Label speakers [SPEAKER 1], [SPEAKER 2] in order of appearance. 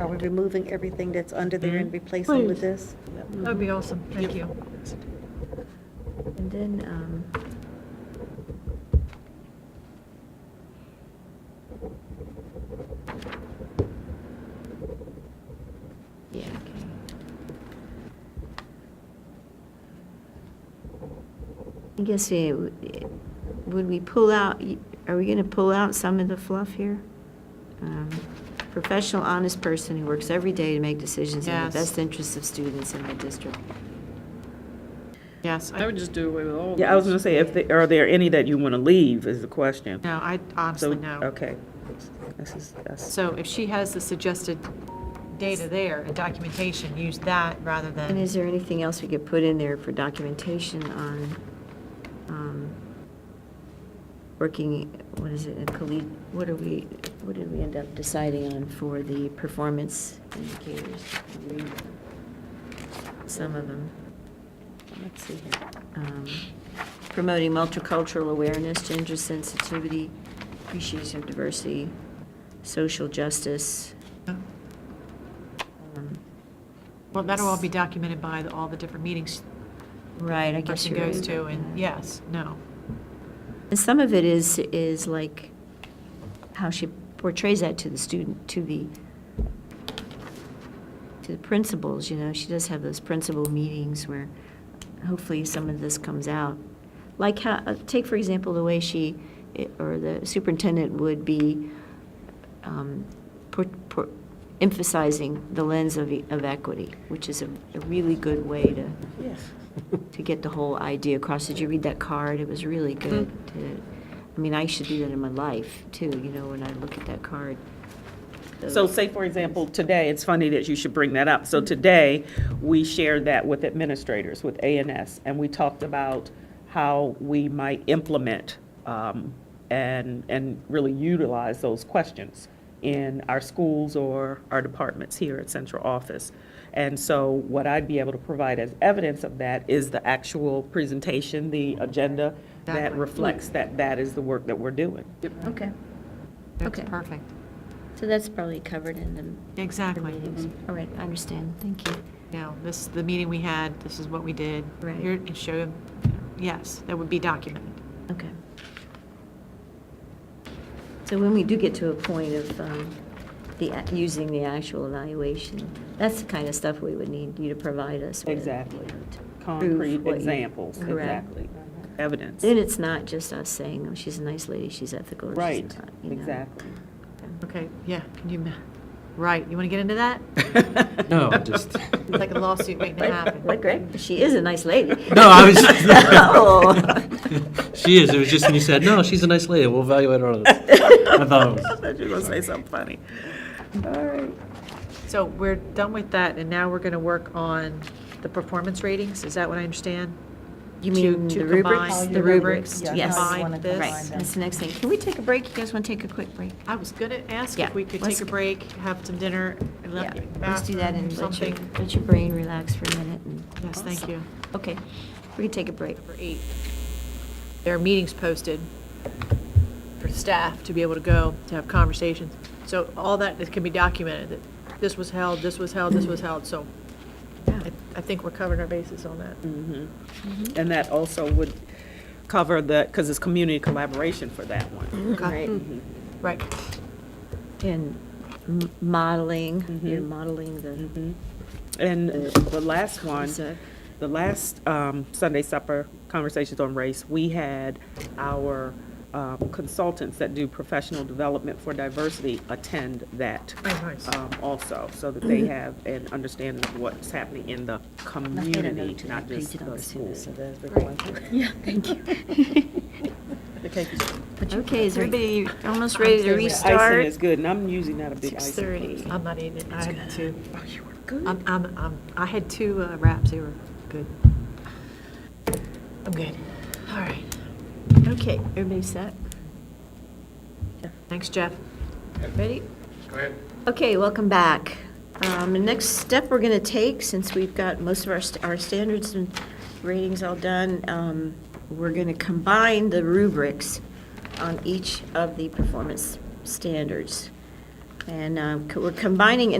[SPEAKER 1] Are we removing everything that's under there and replacing with this?
[SPEAKER 2] That'd be awesome, thank you.
[SPEAKER 3] And then, um, yeah, okay. I guess, we would we pull out, are we gonna pull out some of the fluff here? Um, Professional, honest person who works every day to make decisions in the
[SPEAKER 4] Yes.
[SPEAKER 3] best interests of students in my district.
[SPEAKER 4] Yes, I would just do away with all of
[SPEAKER 5] Yeah, I was
[SPEAKER 4] this.
[SPEAKER 5] gonna say, if, they- are there any that you want to leave is the question.
[SPEAKER 4] No, I
[SPEAKER 5] So,
[SPEAKER 4] honestly no.
[SPEAKER 5] okay. This is, that's,
[SPEAKER 4] So if she has the suggested data there and documentation, use that rather
[SPEAKER 3] And
[SPEAKER 4] than,
[SPEAKER 3] is there anything else we could put in there for documentation on, um, working, what is it, a colleague, what are we, what did we end up deciding on for the performance indicators? Read Some of them. Let's see here. Um, Promoting multicultural awareness, gender sensitivity, appreciation of diversity, social justice. Um,
[SPEAKER 4] well, that'll all be documented by the- all the different meetings
[SPEAKER 3] Right, I
[SPEAKER 4] the
[SPEAKER 3] guess
[SPEAKER 4] person
[SPEAKER 3] you're right
[SPEAKER 4] goes to,
[SPEAKER 3] about
[SPEAKER 4] and
[SPEAKER 3] that.
[SPEAKER 4] yes, no.
[SPEAKER 3] And some of it is, is like how she portrays that to the student, to the, to the principals, you know, she does have those principal meetings where hopefully some of this comes out. Like how, uh, take for example, the way she, eh, or the superintendent would be um, por- por- emphasizing the lens of, e- of equity, which is a a really good way to to get the whole idea across. Did you read that card? It was really good.
[SPEAKER 5] Mm.
[SPEAKER 3] to- I mean, I should do that in my life too, you know, when I look at that card.
[SPEAKER 5] so say, for example, today, it's funny that you should bring that up. So today, we shared that with administrators, with A and S, and we talked about how we might implement um, and, and really utilize those questions in our schools or our departments here at central office. And so what I'd be able to provide as evidence of that is the actual presentation, the agenda that
[SPEAKER 4] Exactly.
[SPEAKER 5] reflects that that is the work that we're doing.
[SPEAKER 3] Okay,
[SPEAKER 4] That's
[SPEAKER 3] Okay.
[SPEAKER 4] perfect.
[SPEAKER 3] so that's probably covered in the the
[SPEAKER 4] Exactly.
[SPEAKER 3] meetings. All right, I understand. Thank you.
[SPEAKER 4] Now, this, is the meeting we had, this is what we did.
[SPEAKER 3] Right.
[SPEAKER 4] Here, and show, them. yes, that would be documented.
[SPEAKER 3] Okay. So when we do get to a point of um, the, a- using the actual evaluation, that's the kind of stuff we would need you to provide us with. you
[SPEAKER 5] Exactly.
[SPEAKER 3] know, to prove
[SPEAKER 5] Concrete
[SPEAKER 3] what you-
[SPEAKER 5] examples,
[SPEAKER 3] Correct.
[SPEAKER 5] exactly. Evidence.
[SPEAKER 3] Then it's not just us saying, oh, she's a nice lady, she's ethical, or she's
[SPEAKER 5] Right,
[SPEAKER 3] not, you know.
[SPEAKER 5] exactly.
[SPEAKER 4] Okay, yeah, can you, ma- right, you want to get into that?
[SPEAKER 6] No, just,
[SPEAKER 4] It's like a lawsuit waiting to happen.
[SPEAKER 3] Like, like Greg, she is a nice lady.
[SPEAKER 6] no, I was,
[SPEAKER 3] Oh.
[SPEAKER 6] she is, it was just when you said, no, she's a nice lady, we'll evaluate her on this. I thought it was,
[SPEAKER 5] thought you were gonna say something funny. All right.
[SPEAKER 4] So we're done with that, and now we're going to work on the performance ratings, is that what I understand?
[SPEAKER 3] You
[SPEAKER 4] To-
[SPEAKER 3] mean
[SPEAKER 4] to
[SPEAKER 3] the
[SPEAKER 4] combine
[SPEAKER 3] rubrics?
[SPEAKER 4] The rubrics, to
[SPEAKER 3] Yes.
[SPEAKER 4] combine
[SPEAKER 3] Right,
[SPEAKER 4] this.
[SPEAKER 3] that's the next thing. Can we take a break? You guys want to take a quick break?
[SPEAKER 4] I was going to ask
[SPEAKER 3] Yeah,
[SPEAKER 4] if we could
[SPEAKER 3] let's-
[SPEAKER 4] take a break, have some dinner, and
[SPEAKER 3] Yeah,
[SPEAKER 4] let-
[SPEAKER 3] let's do that
[SPEAKER 4] bathroom,
[SPEAKER 3] and let your,
[SPEAKER 4] something.
[SPEAKER 3] let your brain relax for a minute. and-
[SPEAKER 4] Yes, thank you.
[SPEAKER 3] Okay, we can take a break.
[SPEAKER 4] Number eight, there are meetings posted for staff to be able to go, to have conversations. So all that is- can be documented, that this was held, this was held, this was held, so I I think we're covering our bases on that.
[SPEAKER 3] Mm.
[SPEAKER 5] And that also would cover the, because it's community collaboration for that one.
[SPEAKER 3] Right.
[SPEAKER 4] Right,
[SPEAKER 3] And m- modeling,
[SPEAKER 5] Mm-hmm.
[SPEAKER 3] you're modeling the,
[SPEAKER 5] And the last one,
[SPEAKER 3] Concept.
[SPEAKER 5] the last um, Sunday supper conversations on race, we had our um, consultants that do professional development for diversity attend that
[SPEAKER 4] Oh, nice.
[SPEAKER 5] um, also, so that they have an understanding of what's happening in the community, not just the school.
[SPEAKER 3] Yeah, thank you.
[SPEAKER 5] The cake is
[SPEAKER 3] Okay, is everybody almost ready to
[SPEAKER 5] Icing
[SPEAKER 3] restart?
[SPEAKER 5] is good, and I'm usually not a big
[SPEAKER 3] Six
[SPEAKER 5] icing
[SPEAKER 3] thirty.
[SPEAKER 5] person.
[SPEAKER 4] I'm not eating, it. I had two,
[SPEAKER 3] Good.
[SPEAKER 4] I'm, I'm, I'm- I had two uh, wraps, they were good. I'm good, all right,
[SPEAKER 3] Okay, everybody set?
[SPEAKER 4] thanks, Jeff.
[SPEAKER 3] Ready? Okay, welcome back. Um, The next step we're going to take, since we've got most of our, st- our standards and ratings all done, um, we're going to combine the rubrics on each of the performance standards. And um, uh, co- we're combining